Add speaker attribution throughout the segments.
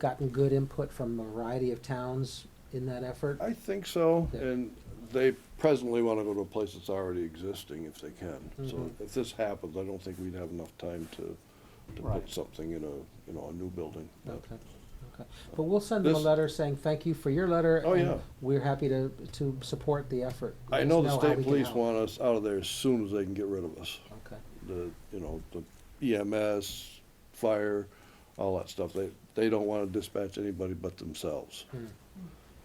Speaker 1: gotten good input from a variety of towns in that effort?
Speaker 2: I think so,
Speaker 1: Yeah.
Speaker 2: and they presently want to go to a place that's already existing if they can. So
Speaker 1: Mhm.
Speaker 2: if this happens, I don't think we'd have enough time to, to
Speaker 3: Right.
Speaker 2: put something in a, you know, a new building. but-
Speaker 1: Okay, okay. But we'll send them a
Speaker 2: This-
Speaker 1: letter saying, thank you for your letter.
Speaker 2: Oh,
Speaker 1: and
Speaker 2: yeah.
Speaker 1: We're happy to, to support the effort. Let
Speaker 2: I
Speaker 1: us
Speaker 2: know the
Speaker 1: how we
Speaker 2: state
Speaker 1: can
Speaker 2: police
Speaker 1: help."
Speaker 2: want us out of there as soon as they can get rid of us.
Speaker 1: Okay,
Speaker 2: The, you know, the EMS, fire, all that stuff. They, they don't want to dispatch anybody but themselves.
Speaker 1: Hmm,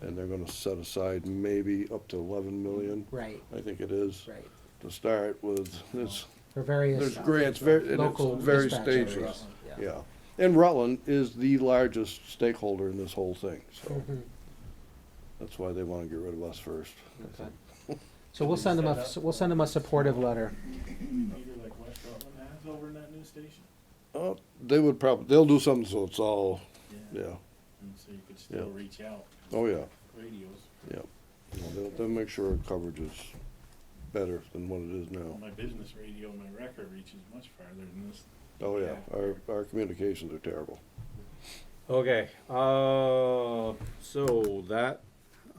Speaker 2: And they're going to set aside maybe up to 11 million,
Speaker 1: right,
Speaker 2: I think it is,
Speaker 1: right.
Speaker 2: to start with. It's,
Speaker 1: For various.
Speaker 2: there's grants, very, and
Speaker 1: local
Speaker 2: it's very
Speaker 1: dispatch
Speaker 2: stages.
Speaker 1: areas,
Speaker 2: Yeah. And Rutland is the largest stakeholder in this whole thing, so
Speaker 1: Mhm,
Speaker 2: that's why they want to get rid of us first. I
Speaker 1: okay.
Speaker 2: think.
Speaker 1: So we'll send them a, we'll send them a supportive letter.
Speaker 4: Either like West Rutland has over in that new station.
Speaker 2: Oh, They would probably, they'll do something so it's all, yeah,
Speaker 4: And so you could still
Speaker 2: Yeah.
Speaker 4: reach out
Speaker 2: oh, yeah.
Speaker 4: radios.
Speaker 2: Yep. You know, They'll, they'll make sure our coverage is better than what it is now.
Speaker 4: My business radio, my record reaches much farther than this.
Speaker 2: Oh, yeah, our, our communications are terrible.
Speaker 3: Okay, uh, so that,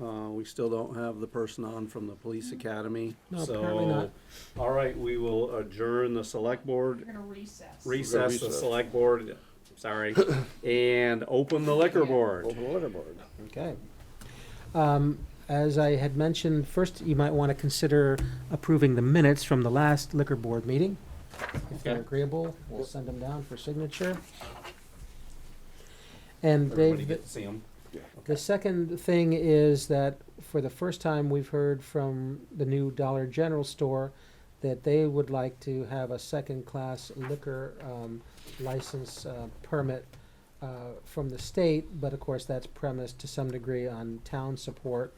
Speaker 3: uh, we still don't have the person on from the police academy,
Speaker 1: No, apparently
Speaker 3: so.
Speaker 1: not.
Speaker 3: All right, we will adjourn the select
Speaker 5: We're
Speaker 3: board,
Speaker 5: gonna recess.
Speaker 3: recess the
Speaker 2: recess.
Speaker 3: select board, sorry, and open the liquor board.
Speaker 2: Open water board.
Speaker 1: Okay. Um, As I had mentioned, first, you might want to consider approving the minutes from the last liquor board meeting. If they're
Speaker 3: Okay.
Speaker 1: agreeable, we'll send them down for signature. And
Speaker 3: Everybody
Speaker 1: Dave,
Speaker 3: get to see 'em.
Speaker 1: the second thing is that for the first time, we've heard from the new Dollar General store that they would like to have a second-class liquor um, license uh, permit uh, from the state, but of course, that's premised to some degree on town support.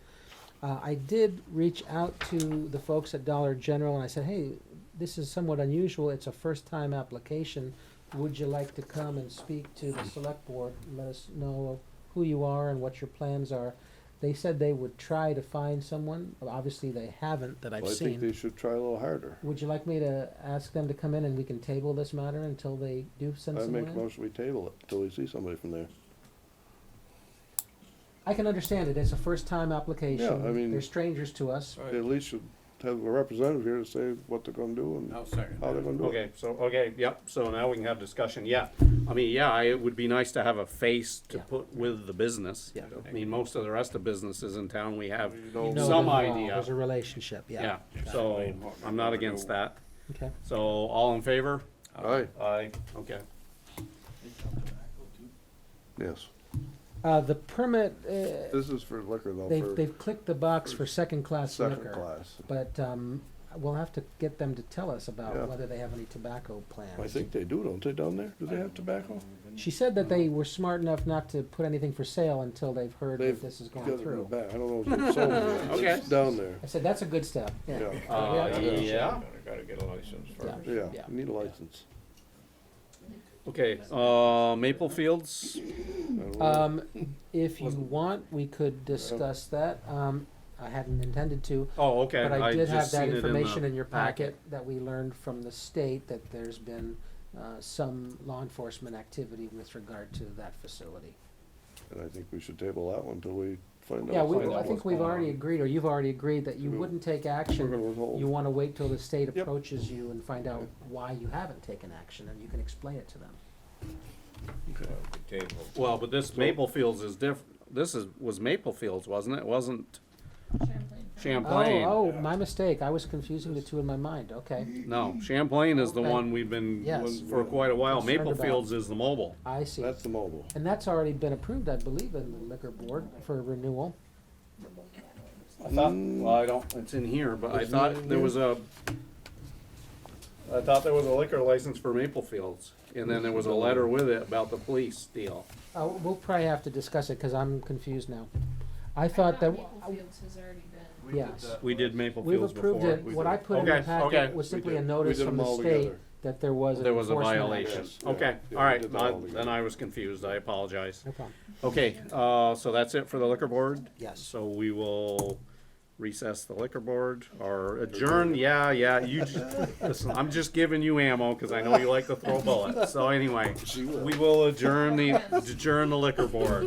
Speaker 1: Uh, I did reach out to the folks at Dollar General and I said, hey, this is somewhat unusual. It's a first-time application. Would you like to come and speak to the select board? Let us know who you are and what your plans are. They said they would try to find someone. Obviously, they haven't that I've
Speaker 2: Well, I think
Speaker 1: seen.
Speaker 2: they should try a little harder.
Speaker 1: Would you like me to ask them to come in and we can table this matter until they do send
Speaker 2: I
Speaker 1: someone
Speaker 2: make a
Speaker 1: in?
Speaker 2: motion we table it until we see somebody from there.
Speaker 1: I can understand it. It's a first-time application.
Speaker 2: I mean-
Speaker 1: They're strangers to us.
Speaker 2: They at least should have a representative here to say what they're gonna do and how they're gonna do it.
Speaker 3: Okay, so, okay, yep, so now we can have discussion, yeah. I mean, yeah, I- it would be nice to have a face to
Speaker 1: Yeah.
Speaker 3: put with the business.
Speaker 1: Yeah.
Speaker 3: I mean, most of the rest of businesses in town, we have
Speaker 1: You know them
Speaker 3: some
Speaker 1: well.
Speaker 3: idea.
Speaker 1: There's a relationship,
Speaker 3: Yeah,
Speaker 1: yeah.
Speaker 3: so I'm not against that.
Speaker 1: Okay.
Speaker 3: So all in favor?
Speaker 2: Aye,
Speaker 3: Aye. Okay.
Speaker 4: They sell tobacco too.
Speaker 2: yes.
Speaker 1: Uh, the permit, uh,
Speaker 2: This is for liquor though,
Speaker 1: they've,
Speaker 2: for
Speaker 1: they've clicked the box for second-class
Speaker 2: second
Speaker 1: liquor.
Speaker 2: class.
Speaker 1: But, um, we'll have to get them to tell us
Speaker 2: Yeah.
Speaker 1: about whether they have any tobacco plans.
Speaker 2: I think they do, don't they, down there? Do they have tobacco?
Speaker 1: She said that they were smart enough not to put anything for sale until they've heard
Speaker 2: They've
Speaker 1: that this is
Speaker 2: got it
Speaker 1: going
Speaker 2: in the
Speaker 1: through.
Speaker 2: back. I don't know if it's sold yet.
Speaker 3: Okay.
Speaker 2: It's Down there,
Speaker 1: I said, that's a good step, yeah.
Speaker 2: yeah,
Speaker 3: Uh,
Speaker 1: Yeah.
Speaker 3: yeah,
Speaker 6: Gotta get a license
Speaker 1: Yeah.
Speaker 6: first.
Speaker 2: yeah,
Speaker 1: Yeah.
Speaker 2: you need a license.
Speaker 3: okay, uh, Maple Fields,
Speaker 2: I don't know.
Speaker 1: Um, if you want, we could discuss that. Um, I hadn't intended to,
Speaker 3: oh, okay,
Speaker 1: But I
Speaker 3: I
Speaker 1: did have
Speaker 3: just
Speaker 1: that
Speaker 3: seen it in
Speaker 1: information
Speaker 3: the.
Speaker 1: in your packet that we learned from the state that there's been uh, some law enforcement activity with regard to that facility.
Speaker 2: And I think we should table that one till we find out.
Speaker 1: Yeah, we,
Speaker 2: find
Speaker 1: I
Speaker 2: out
Speaker 1: think
Speaker 2: what's
Speaker 1: we've
Speaker 2: going
Speaker 1: already
Speaker 2: on.
Speaker 1: agreed, or you've already agreed, that you
Speaker 2: We're-
Speaker 1: wouldn't take
Speaker 2: We're gonna
Speaker 1: action. You
Speaker 2: withhold.
Speaker 1: wanna wait till the state
Speaker 2: Yep.
Speaker 1: approaches you and find out why you haven't taken action, and you can explain it to them.
Speaker 2: Okay.
Speaker 6: The table.
Speaker 3: Well, but this Maple Fields is diff, this is, was Maple Fields, wasn't it? Wasn't
Speaker 5: Champlain.
Speaker 3: Champlain?
Speaker 1: Oh, oh, my mistake, I was confusing the two in my mind, okay.
Speaker 3: No, Champlain is the
Speaker 1: Okay.
Speaker 3: one we've been
Speaker 1: Yes.
Speaker 3: for quite a while.
Speaker 1: Concerned
Speaker 3: Maple
Speaker 1: about.
Speaker 3: Fields is the mobile.
Speaker 1: I see.
Speaker 2: That's the mobile.
Speaker 1: And that's already been approved, I believe, in the liquor board for renewal.
Speaker 3: I thought,
Speaker 2: Mm.
Speaker 3: well, I don't, it's in here, but
Speaker 2: Isn't
Speaker 3: I
Speaker 2: it in
Speaker 3: thought there
Speaker 2: here?
Speaker 3: was a, I thought there was a liquor license for Maple Fields, and then there was a letter with it about the police deal.
Speaker 1: Uh, we'll probably have to discuss it, cause I'm confused now. I thought that,
Speaker 5: Maple Fields has already been.
Speaker 1: yes,
Speaker 3: We did Maple
Speaker 1: we've
Speaker 3: Fields
Speaker 1: approved
Speaker 3: before.
Speaker 1: it, what I put in
Speaker 3: Okay,
Speaker 1: the packet
Speaker 3: okay.
Speaker 1: was
Speaker 2: We
Speaker 1: simply
Speaker 2: did.
Speaker 1: a
Speaker 2: We
Speaker 1: notice
Speaker 2: did
Speaker 1: from
Speaker 2: them
Speaker 1: the
Speaker 2: all
Speaker 1: state
Speaker 2: together.
Speaker 1: that there was an
Speaker 3: There was a
Speaker 1: enforcement
Speaker 3: violation.
Speaker 1: action.
Speaker 2: Yeah,
Speaker 3: Okay,
Speaker 2: yeah, we
Speaker 3: all right,
Speaker 2: did that all
Speaker 3: I- then
Speaker 2: together.
Speaker 3: I was confused, I apologize.
Speaker 1: No problem.
Speaker 3: Okay, uh, so that's it for the liquor board?
Speaker 1: Yes.
Speaker 3: So we will recess the liquor board or adjourn, yeah, yeah, you, ju- listen, I'm just giving you ammo because I know you like to throw bullets. So anyway,
Speaker 2: She will.
Speaker 3: we will adjourn the, adjourn the liquor board.